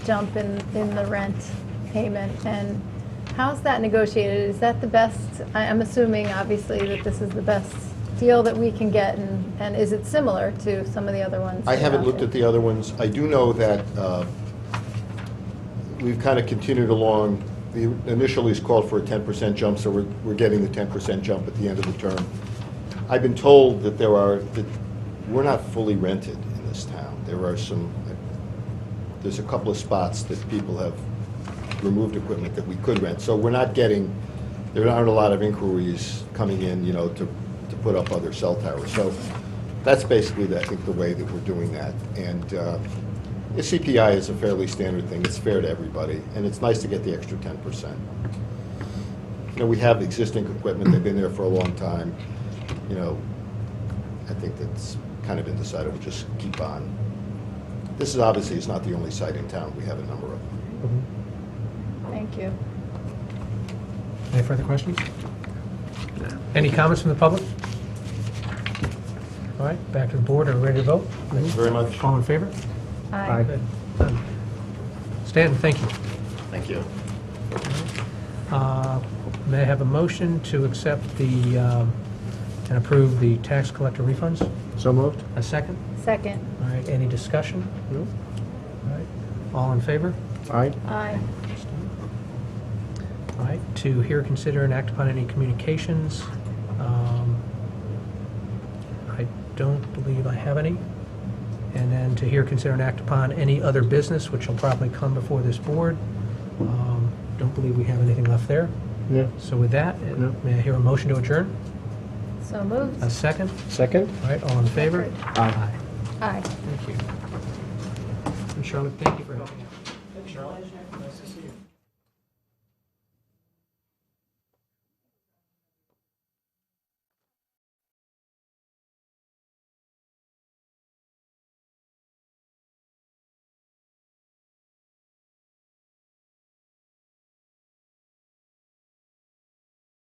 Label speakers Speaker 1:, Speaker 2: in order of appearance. Speaker 1: jump in, in the rent payment, and how's that negotiated? Is that the best, I- I'm assuming, obviously, that this is the best deal that we can get, and, and is it similar to some of the other ones?
Speaker 2: I
Speaker 1: that are
Speaker 2: haven't
Speaker 1: out
Speaker 2: looked
Speaker 1: there?
Speaker 2: at the other ones. I do know that uh, we've kind of continued along. The initial lease called for a 10% jump, so we're we're getting the 10% jump at the end of the term. I've been told that there are, that we're not fully rented in this town. There are some, there's a couple of spots that people have removed equipment that we could rent. So we're not getting, there aren't a lot of inquiries coming in, you know, to, to put up other cell towers. So that's basically, the- I think, the way that we're doing that. And uh, the CPI is a fairly standard thing. It's fair to everybody, and it's nice to get the extra ten percent. You know, we have existing equipment. They've been there for a long time. You know, I think that's kind of been decided. We'll just keep on. This is obviously, it's not the only site in town. We have a number of them.
Speaker 1: Thank you.
Speaker 3: Any further questions? Any comments from the public? All right, back to the board. Are we ready to vote?
Speaker 2: Thank you very much.
Speaker 3: All in favor?
Speaker 1: Aye.
Speaker 3: Good. Done. Stan, thank you.
Speaker 2: Thank you.
Speaker 3: Uh, May I have a motion to accept the, um, and approve the tax collector refunds?
Speaker 4: So moved?
Speaker 3: A second?
Speaker 1: Second,
Speaker 3: All right, any discussion?
Speaker 4: No.
Speaker 3: All right, all in favor?
Speaker 4: Aye.
Speaker 1: aye.
Speaker 3: All right, to hear, consider, and act upon any communications. Um, I don't believe I have any. And then to hear, consider, and act upon any other business, which will probably come before this board. Um, Don't believe we have anything left there.
Speaker 4: Yeah.
Speaker 3: So with that, uh,
Speaker 4: No.
Speaker 3: may I hear a motion to adjourn?
Speaker 1: So moved.
Speaker 3: A second?
Speaker 4: Second?
Speaker 3: All right, all in favor?
Speaker 4: Aye.
Speaker 1: Aye.
Speaker 3: Thank you. And Charlotte, thank you for helping out.